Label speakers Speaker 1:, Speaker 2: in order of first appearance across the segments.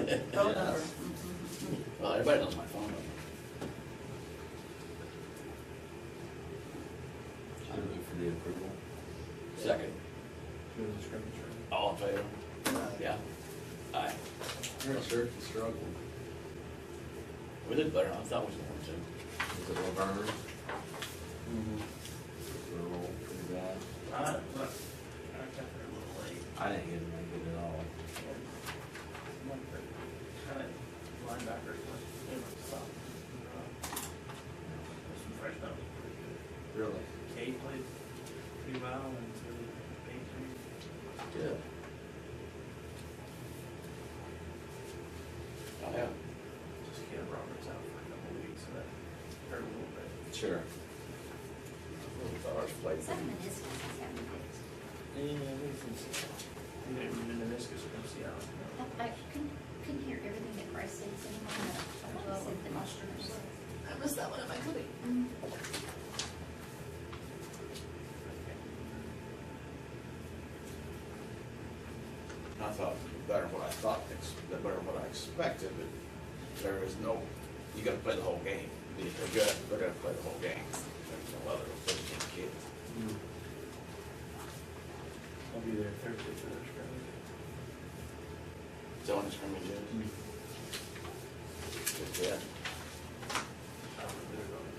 Speaker 1: Phone number.
Speaker 2: Well, everybody knows my phone number.
Speaker 3: I move for the approval.
Speaker 2: Second,
Speaker 4: Through the scrimmage.
Speaker 2: all in favor? Yeah? Aye.
Speaker 3: I'm sure it's a struggle.
Speaker 2: We did better than I thought we was going to.
Speaker 3: Is it Laverne? Mm-hmm. We're all pretty bad.
Speaker 1: I, but I got there a little late.
Speaker 3: I didn't get to make it at all.
Speaker 1: and one for- kind of Linebacker, one, you know, stop. Uh, Some fresh that was pretty good.
Speaker 3: Really?
Speaker 1: Kate played pretty well and so did Paige.
Speaker 3: Good.
Speaker 2: Oh, yeah.
Speaker 1: Just Caleb Roberts out for a couple of weeks, so that hurt a little bit.
Speaker 3: Sure.
Speaker 2: Ours played.
Speaker 5: Some of this one is having it.
Speaker 1: And they were meniscus, we're gonna see how. it goes.
Speaker 5: I couldn't, couldn't hear everything that Bryce said, so I thought he said the mushrooms.
Speaker 6: I missed that one at my clinic.
Speaker 5: Mm.
Speaker 7: I thought better than what I thought, ex- better than what I expected, but there is no, you gotta play the whole game. They're good, they're gonna play the whole game. There's no other, fifteen kids.
Speaker 1: I'll be there Thursday for their scrimmage.
Speaker 2: Zone scrimmages. Mm-hmm.
Speaker 7: Just, yeah.
Speaker 1: I'll be there on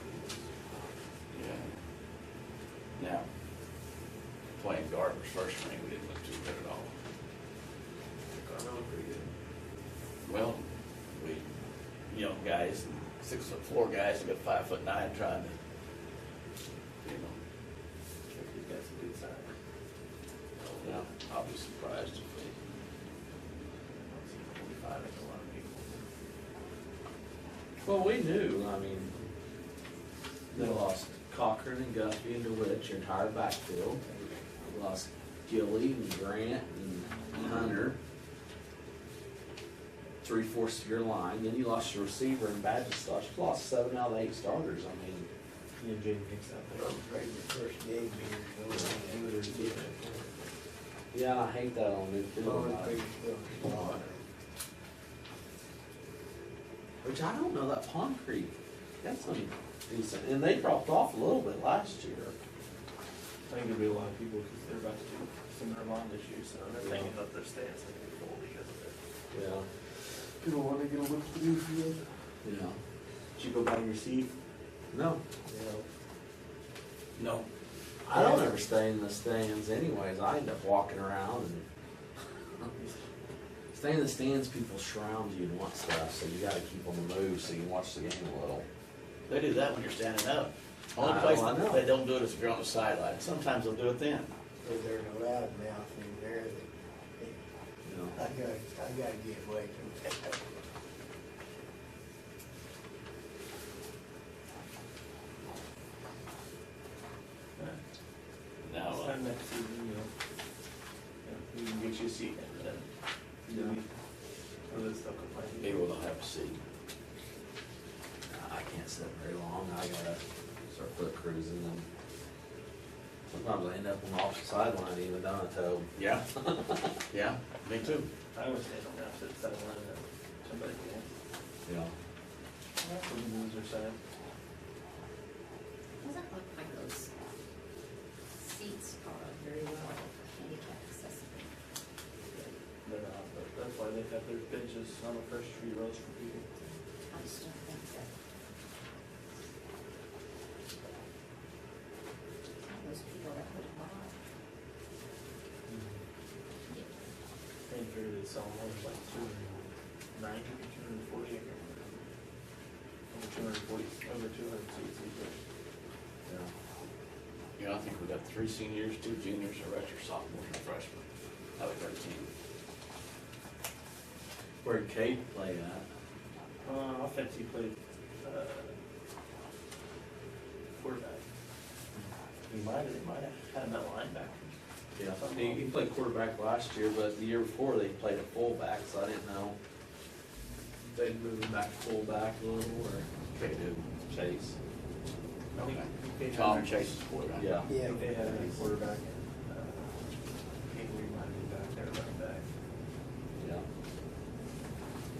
Speaker 2: Yeah. Now, playing Gardner's first ring, we didn't look too good at all.
Speaker 1: the- Carmelo pretty good.
Speaker 2: Well, we, young guys, six foot four guys, we got five foot nine trying to, you know,
Speaker 1: He's got some good size.
Speaker 2: yeah, I'll be surprised if they,
Speaker 1: Forty-five, that's a lot of people.
Speaker 3: Well, we knew, I mean, they lost Cochran and Guthrie and DeWitt, your entire backfield. We Lost Gilly and Grant and Hunter. Three fourths of your line, then you lost your receiver and Badgestosh, you lost seven out of eight starters, I mean.
Speaker 4: You and Jay fix that.
Speaker 8: I'm afraid the first game here, no, I would have given it.
Speaker 3: Yeah, and I hate that on
Speaker 8: Always
Speaker 3: Newfield.
Speaker 8: big stuff.
Speaker 3: Which I don't know, that Pond Creek, that's been decent, and they dropped off a little bit last year.
Speaker 1: I think there'll be a lot of people, because they're about to do similar bond issues, so they're thinking about their stance, they're gonna be full because of it.
Speaker 3: Yeah.
Speaker 4: People wanna get a look through for you.
Speaker 3: Yeah.
Speaker 4: Did you go buy your seat?
Speaker 3: No,
Speaker 2: no,
Speaker 3: I don't ever stay in the stands anyways. I end up walking around and stay in the stands, people surround you and want stuff, so you gotta keep on the move so you can watch the game a little.
Speaker 2: They do that when you're standing up. Only
Speaker 3: I-
Speaker 2: place
Speaker 3: I know.
Speaker 2: they don't do it is if you're on the sideline. Sometimes they'll do it then.
Speaker 8: Cause there's a loud mouth in there that,
Speaker 3: You know.
Speaker 8: I gotta, I gotta get away from that.
Speaker 2: Now,
Speaker 1: It's
Speaker 2: uh,
Speaker 1: time next season, you know, you know, we can get you a seat and then, maybe, or let's still
Speaker 2: maybe
Speaker 1: complain.
Speaker 2: we'll not have a seat.
Speaker 3: I can't sit very long. I gotta start foot cruising and sometimes I end up on the opposite sideline even though I tow.
Speaker 2: Yeah? Yeah, me too.
Speaker 1: I always say don't have to settle in and somebody can.
Speaker 3: Yeah.
Speaker 1: That's what the loser side.
Speaker 5: Doesn't look like those seats are very well handicap accessible.
Speaker 1: They're not, but that's why they have their benches on the first three rows for people.
Speaker 5: I just don't think that. Those people that would buy.
Speaker 1: They figured they sell more for like two hundred and ninety, two hundred and forty, I can't remember. Over two hundred and forty, over two hundred seats each. row.
Speaker 3: Yeah.
Speaker 2: You know, I think we got three seniors, two juniors, a redshirt sophomore, and a freshman. Out of thirteen.
Speaker 3: Where Kate play at?
Speaker 1: Uh, offense, he played, uh, quarterback. He might have, he might have had him at linebacker.
Speaker 3: Yeah. He, he played quarterback last year, but the year before they played a fullback, so I didn't know. if They'd move him back to fullback a little or
Speaker 2: Okay, dude.
Speaker 3: chase.
Speaker 1: I think- I think they had
Speaker 2: Tom
Speaker 1: him-
Speaker 2: Chase's quarterback.
Speaker 3: Yeah.
Speaker 1: I think they had him at quarterback. uh,